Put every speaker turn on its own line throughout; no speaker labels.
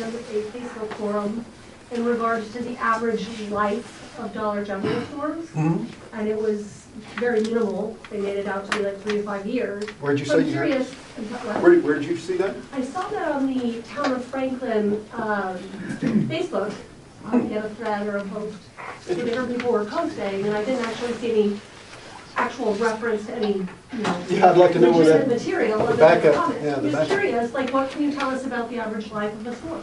a Facebook forum in regards to the average life of Dollar General forums,
Hmm?
and it was very minimal. They made it out to be like three to five years.
Where'd you
So
say
I'm
you heard?
curious. what-
Where, where did you see that?
I saw that on the Town of Franklin um, Facebook, I had a thread or a post, so different people were posting, and I didn't actually see any actual reference to any, you know.
Yeah, I'd like to know where
legitimate
that-
Material
the
other than
backup,
comments.
yeah, the
Just
backup.
curious, like, what can you tell us about the average life of a store?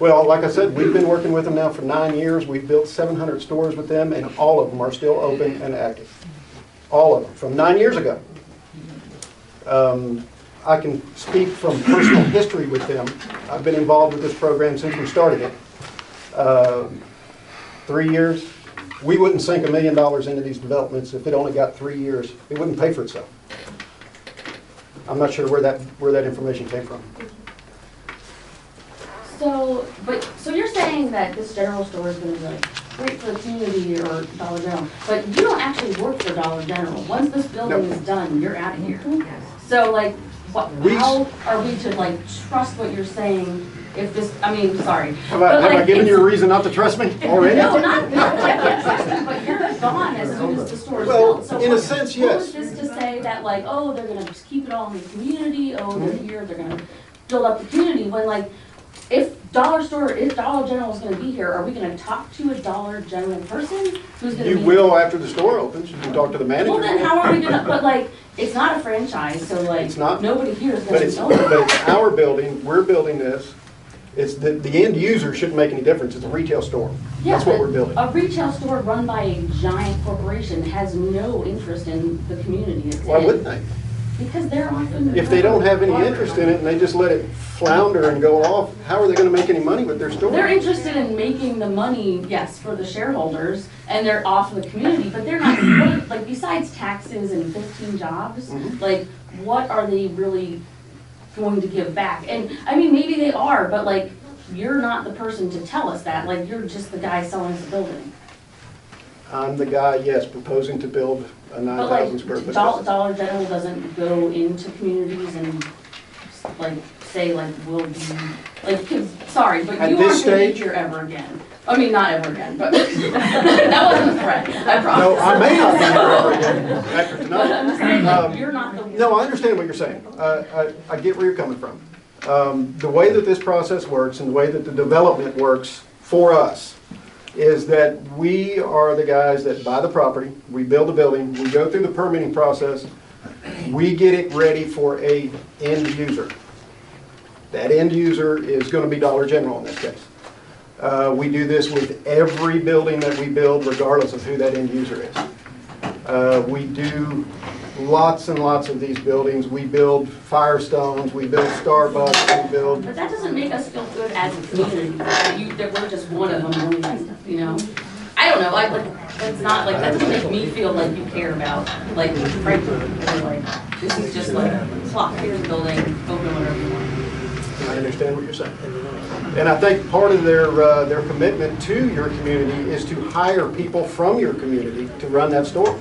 Well, like I said, we've been working with them now for nine years. We've built 700 stores with them, and all of them are still open and active. All of them, from nine years ago. Um, I can speak from personal history with them. I've been involved with this program since we started it. Uh, Three years, we wouldn't sink a million dollars into these developments if it only got three years. It wouldn't pay for itself. I'm not sure where that, where that information came from.
So, but, so you're saying that this general store is gonna be like great for the community or Dollar General, but you don't actually work for Dollar General. Once this building
No.
is done, you're out of here. So like, what,
We-
how are we to like trust what you're saying if this, I mean, sorry.
Have I,
but,
have I
like,
given you a
it's-
reason not to trust me already?
No, not, no, I can't trust you, but you're gone as soon as the store is
Well,
built. So
in a
what-
sense,
what
yes.
was this to say that like, oh, they're gonna just keep it all in the community, oh, they're
Mm-hmm.
here, they're gonna build up the community, when like, if Dollar Store, if Dollar General is gonna be here, are we gonna talk to a Dollar General person who's gonna be?
You will after the store opens, you can talk to the manager.
Well, then how are we gonna, but like, it's not a franchise, so like,
It's not.
nobody here is
But it's,
gonna
but
know.
it's our building, we're building this, it's, the, the end user shouldn't make any difference, it's a retail store.
Yeah,
That's what
but
we're building.
A retail store run by a giant corporation has no interest in the community it's in.
Why wouldn't they?
Because they're often.
If they don't have any interest in it and they just let it flounder and go off, how are they gonna make any money with their store?
They're interested in making the money, yes, for the shareholders, and they're off the community, but they're not, what- like, besides taxes and fifteen jobs,
Mhm.
like, what are they really going to give back? And, I mean, maybe they are, but like, you're not the person to tell us that, like, you're just the guy selling us the building.
I'm the guy, yes, proposing to build a nine
But
thousand square foot.
like, Dollar,
building.
Dollar General doesn't go into communities and like say like, will be, like, 'cause- sorry, but
At
you
this
aren't gonna be
stage-
here ever again. I mean, not ever again, but that wasn't a threat, I
No,
promise.
I may not be here ever again after
But
tonight.
I'm saying,
Um,
like, you're not the.
No, I understand what you're saying. Uh, I, I get where you're coming from. Um, The way that this process works and the way that the development works for us is that we are the guys that buy the property, we build the building, we go through the permitting process, we get it ready for a end user. That end user is going to be Dollar General in this case. Uh, We do this with every building that we build regardless of who that end user is. Uh, We do lots and lots of these buildings. We build Firestones, we build Starbucks, we build,
But that doesn't make us feel good as a community, that you, that we're just one of them, and that's, you know? I don't know, I, like, that's not, like, that doesn't make me feel like you care about, like, Franklin, or like, this is just like, clock, here's the building, open whatever you want.
I understand what you're saying. And I think part of their, uh, their commitment to your community is to hire people from your community to run that store.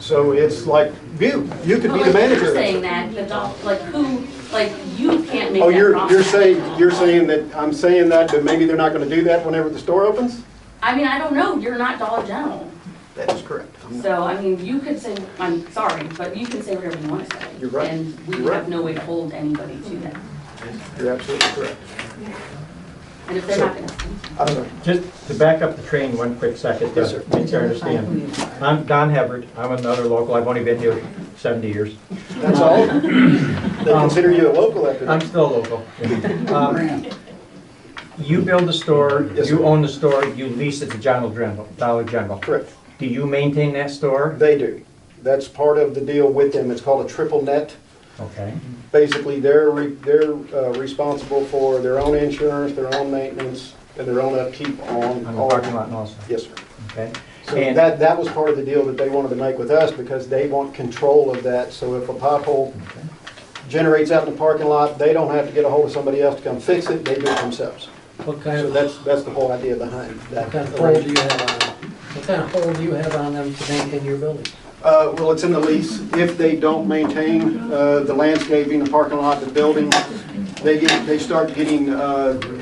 So it's like you, you could be the
But like, you're
manager. of that store.
saying that, the dog, like, who, like, you can't make that
Oh, you're, you're
promise.
saying, you're saying that, I'm saying that, but maybe they're not going to do that whenever the store opens?
I mean, I don't know, you're not Dollar General,
That is correct. I'm not-
so, I mean, you could say, I'm sorry, but you can say whatever you want to say.
You're right.
And we
You're right.
have no way to hold anybody to that,
You're absolutely correct.
and if they're not gonna.
I'm sorry.
Just to back up the train one quick second,
Yes,
to
sir.
make sure I understand. I'm Don Havard, I'm another local, I've only been here 70 years.
That's all? They consider you a local after
I'm
that?
still local. Um, You build the store,
Yes, sir.
you own the store, you lease it to Donald General, Dollar General.
Correct.
Do you maintain that store?
They do. That's part of the deal with them. It's called a triple net.
Okay.
Basically, they're, re- they're uh, responsible for their own insurance, their own maintenance, and their own upkeep on.
On the
all-
parking lot and also,
Yes, sir.
okay?
So
And-
that, that was part of the deal that they wanted to make with us because they want control of that. So if a pothole generates out in the parking lot, they don't have to get a hold of somebody else to come fix it. They do it themselves.
What kind
So
of,
that's, that's the whole idea behind that.
what kind of hold do you have on them? What kind of hold do you have on them to maintain your building?
Uh, well, it's in the lease. If they don't maintain, uh, the landscaping, the parking lot, the building, they get, they start getting, uh,